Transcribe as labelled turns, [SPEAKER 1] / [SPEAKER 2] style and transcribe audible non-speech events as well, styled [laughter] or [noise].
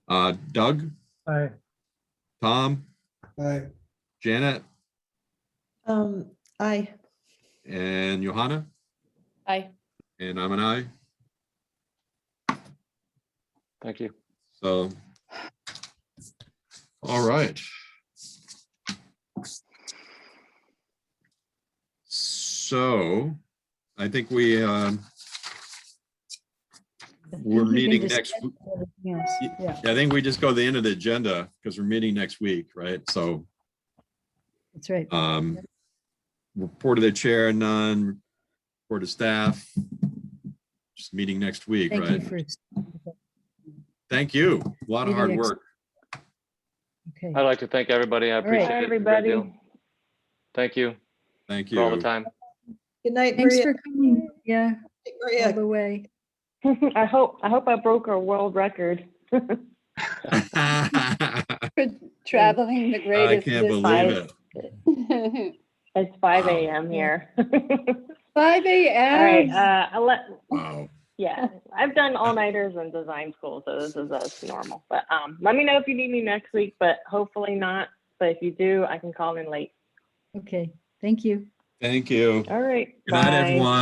[SPEAKER 1] Uh, Doug,
[SPEAKER 2] Aye.
[SPEAKER 1] Tom,
[SPEAKER 2] Aye.
[SPEAKER 1] Janet,
[SPEAKER 3] Um, aye.
[SPEAKER 1] and Johanna,
[SPEAKER 4] Aye.
[SPEAKER 1] and I'm an I.
[SPEAKER 5] Thank you.
[SPEAKER 1] So. All right. So I think we, um, we're meeting next, w-
[SPEAKER 4] Yes.
[SPEAKER 1] Y-
[SPEAKER 4] Yeah.
[SPEAKER 1] I think we just go to the end of the agenda because we're meeting next week, right? So,
[SPEAKER 4] That's right.
[SPEAKER 1] um, report to the chair, none, report to staff. Just meeting next week,
[SPEAKER 4] Thank you
[SPEAKER 1] right?
[SPEAKER 4] for,
[SPEAKER 1] Thank you. A lot of
[SPEAKER 4] Meeting
[SPEAKER 1] hard
[SPEAKER 4] next-
[SPEAKER 1] work.
[SPEAKER 4] okay.
[SPEAKER 5] I'd like to thank everybody. I
[SPEAKER 4] right.
[SPEAKER 5] appreciate it. a great deal. Thank you
[SPEAKER 1] Thank you.
[SPEAKER 5] for all the time.
[SPEAKER 3] Good night,
[SPEAKER 4] Thanks
[SPEAKER 3] Maria.
[SPEAKER 4] for coming. Yeah,
[SPEAKER 3] Take
[SPEAKER 4] all
[SPEAKER 3] Maria.
[SPEAKER 4] the way.
[SPEAKER 6] [laughs] I hope, I hope I broke a world record.
[SPEAKER 1] [laughs]
[SPEAKER 7] Traveling the
[SPEAKER 1] I
[SPEAKER 7] greatest.
[SPEAKER 1] can't believe
[SPEAKER 7] distance.
[SPEAKER 1] it.
[SPEAKER 6] It's five
[SPEAKER 1] Wow.
[SPEAKER 6] AM here. [laughs]
[SPEAKER 7] Five
[SPEAKER 6] All right,
[SPEAKER 7] AM.
[SPEAKER 6] uh, I let,
[SPEAKER 1] Wow.
[SPEAKER 6] yeah, I've done all nighters in design school, so this is us normal. But, um, let me know if you need me next week, but hopefully not. But if you do, I can call in late.
[SPEAKER 4] Okay, thank you.
[SPEAKER 1] Thank you.
[SPEAKER 6] All right.
[SPEAKER 1] Good night,
[SPEAKER 6] bye.
[SPEAKER 1] everyone.